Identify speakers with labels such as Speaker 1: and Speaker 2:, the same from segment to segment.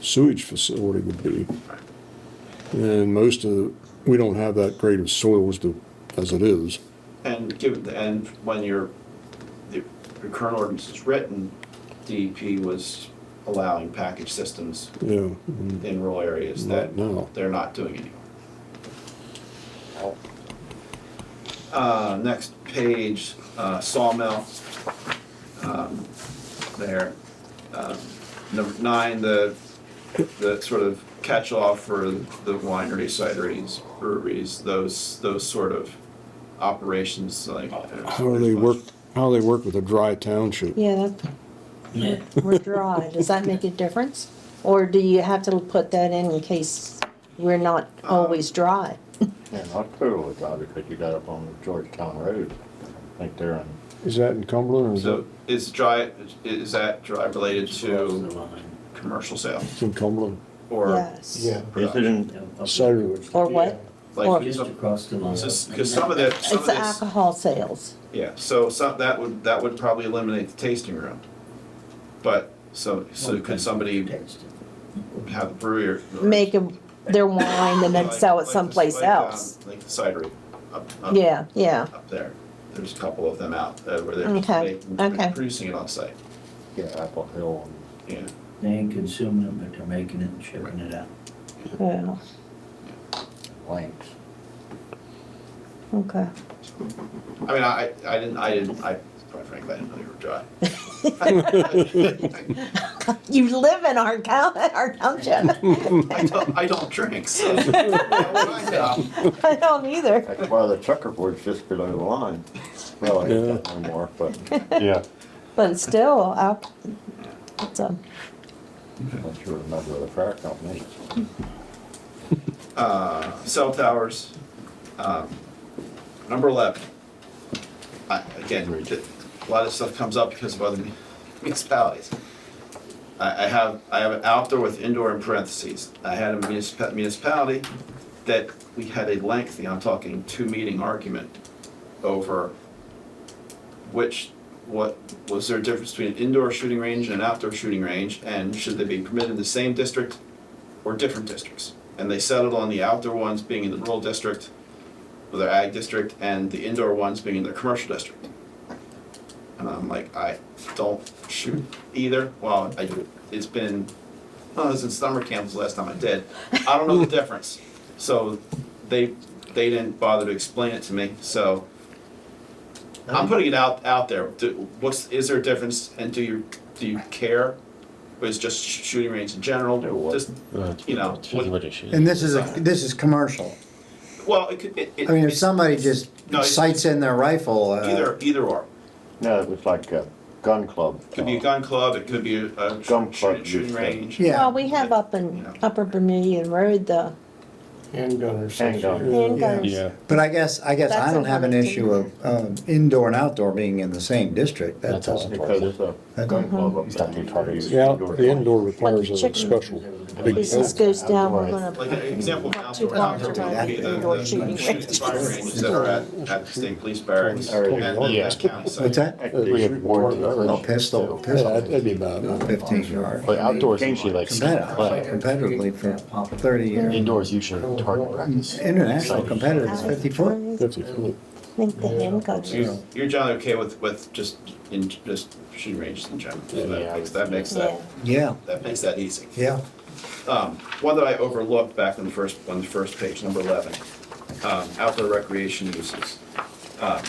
Speaker 1: sewage facility would be. And most of, we don't have that grade of soils to, as it is.
Speaker 2: And given, and when your, the the current ordinance is written, DEP was allowing package systems
Speaker 1: Yeah,
Speaker 2: in rural areas
Speaker 1: not
Speaker 2: that
Speaker 1: now.
Speaker 2: they're not doing anymore. Uh, next page, uh, sawmill. Um, There. Um, Number nine, the, the sort of catch-all for the wineries, cideries, breweries, those, those sort of operations like.
Speaker 1: How do they work, how do they work with a dry township?
Speaker 3: Yeah, that, we're dry, does that make a difference? Or do you have to put that in in case we're not always dry?
Speaker 4: Yeah, not totally driving, because you got up on Georgetown Road, I think they're on.
Speaker 1: Is that in Cumberland or is that
Speaker 2: So is dry, is that dry related to commercial sales
Speaker 1: in Cumberland?
Speaker 2: or
Speaker 3: Yes.
Speaker 5: Yeah.
Speaker 4: Is it in,
Speaker 1: Cider.
Speaker 3: Or what?
Speaker 2: like?
Speaker 5: Just across the line.
Speaker 2: Because some of the, some of
Speaker 3: It's
Speaker 2: this,
Speaker 3: alcohol sales.
Speaker 2: yeah, so some, that would, that would probably eliminate the tasting room. But, so, so could somebody have a brewery or?
Speaker 3: Make 'em- their wine and then
Speaker 2: Like-
Speaker 3: sell
Speaker 2: like
Speaker 3: it
Speaker 2: the-
Speaker 3: someplace
Speaker 2: like, um,
Speaker 3: else.
Speaker 2: Like the cidery up, up.
Speaker 3: Yeah, yeah,
Speaker 2: Up there, there's a couple of them out, uh, where they're
Speaker 3: Okay,
Speaker 2: making-
Speaker 3: okay.
Speaker 2: producing it on site,
Speaker 4: yeah, Apple Hill and.
Speaker 2: yeah.
Speaker 5: They ain't consuming it, but they're making it and shipping it out.
Speaker 3: yeah,
Speaker 4: links.
Speaker 3: okay.
Speaker 2: I mean, I, I didn't, I didn't, I, quite frankly, I didn't know they were dry.
Speaker 3: You live in our town, our township.
Speaker 2: I don't, I don't drink, so. how would I know?
Speaker 3: I don't either.
Speaker 4: That's why the checkerboard's just below the line. Well, I hate that no more, but
Speaker 6: Yeah,
Speaker 3: But still, I'll- it's a,
Speaker 4: once you're a member of the fire company.
Speaker 2: Uh, cell towers, um, number eleven. I, again, a lot of stuff comes up because of other municipalities. I, I have, I have an outdoor with indoor in parentheses. I had a municipa- municipality that we had a lengthy, I'm talking two meeting argument over which, what, was there a difference between an indoor shooting range and an outdoor shooting range? And should they be permitted in the same district or different districts? And they settled on the outdoor ones being in the rural district, or their ag district, and the indoor ones being in their commercial district. And I'm like, I don't shoot either, well, I, it's been, well, it was in summer camp was the last time I did, I don't know the difference. So they, they didn't bother to explain it to me, so I'm putting it out, out there, do, what's, is there a difference, and do you, do you care? Or is just sh- shooting range in general, just, you know, what-
Speaker 7: And this is, a this is commercial.
Speaker 2: well, it could, it, it.
Speaker 7: I mean, if
Speaker 2: it's
Speaker 7: somebody just
Speaker 2: No, it's-
Speaker 7: sights in their rifle, uh,
Speaker 2: Either, either or,
Speaker 4: No, it was like a gun club.
Speaker 2: could be a gun club, it could be a, a
Speaker 4: Gun
Speaker 2: shooting,
Speaker 4: club, you
Speaker 2: shooting
Speaker 4: said.
Speaker 2: range.
Speaker 3: well,
Speaker 7: yeah,
Speaker 3: we have up in Upper Bermudian Road the
Speaker 5: Handgun or
Speaker 4: Handgun.
Speaker 3: handguns.
Speaker 6: yeah.
Speaker 7: but I guess, I guess I
Speaker 3: That's
Speaker 7: don't have an
Speaker 3: another
Speaker 7: issue of um, indoor and outdoor being in the same district, that doesn't.
Speaker 4: Because it's a gun club up there. you try to use
Speaker 1: Yeah,
Speaker 4: indoor
Speaker 1: the indoor
Speaker 4: lights.
Speaker 1: requires a
Speaker 3: Chicken.
Speaker 1: special. big
Speaker 3: Business goes down, we're
Speaker 2: Like
Speaker 3: gonna,
Speaker 2: an example of
Speaker 3: Not too
Speaker 2: outdoor,
Speaker 3: large
Speaker 2: outdoor
Speaker 7: around
Speaker 2: would be the,
Speaker 3: indoor
Speaker 2: the
Speaker 3: shooting
Speaker 2: shooting and fire ranges that are at, at the state police barracks
Speaker 4: Or-
Speaker 2: and then
Speaker 6: Yeah.
Speaker 2: the county site.
Speaker 7: What's that?
Speaker 6: We have
Speaker 7: Oh,
Speaker 6: warranty.
Speaker 7: pistol,
Speaker 1: Yeah,
Speaker 7: pistol,
Speaker 1: that'd be about it.
Speaker 7: fifteen yard.
Speaker 6: But outdoors usually like,
Speaker 7: Competitive,
Speaker 6: but
Speaker 7: competitively for thirty years.
Speaker 6: indoors usually target practice.
Speaker 7: International competitors, fifty foot.
Speaker 1: Fifty foot.
Speaker 3: I think the handguns.
Speaker 2: So You're, you're generally okay with, with just, in, just shooting ranges in general, so that
Speaker 6: Yeah.
Speaker 2: makes, that makes
Speaker 3: Yeah,
Speaker 2: that,
Speaker 7: Yeah,
Speaker 2: that makes that easy.
Speaker 7: yeah.
Speaker 2: Um, one that I overlooked back on the first, on the first page, number eleven, um, outdoor recreation uses. Um,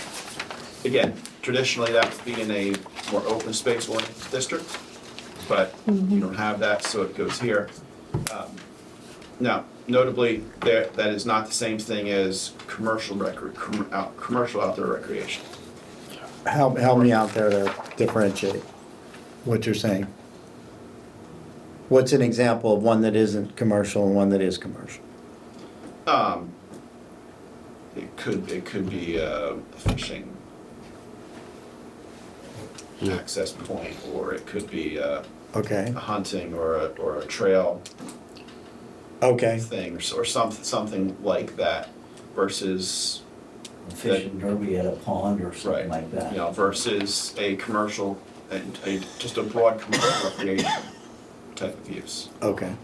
Speaker 2: Again, traditionally, that would be in a more open space oriented district, but you don't have that, so it goes here. Um, Now, notably, there, that is not the same thing as commercial recre, com, out, commercial outdoor recreation.
Speaker 7: Help, help me out there to differentiate what you're saying. What's an example of one that isn't commercial and one that is commercial?
Speaker 2: Um, it could, it could be uh, a fishing access point, or it could be a
Speaker 7: Okay,
Speaker 2: a hunting or a, or a trail
Speaker 7: okay.
Speaker 2: thing, or s- or some, something like that versus,
Speaker 5: Fishing derby at a pond or
Speaker 2: right,
Speaker 5: something like that.
Speaker 2: you know, versus a commercial, a, a, just a broad commercial recreation type of use.
Speaker 7: Okay.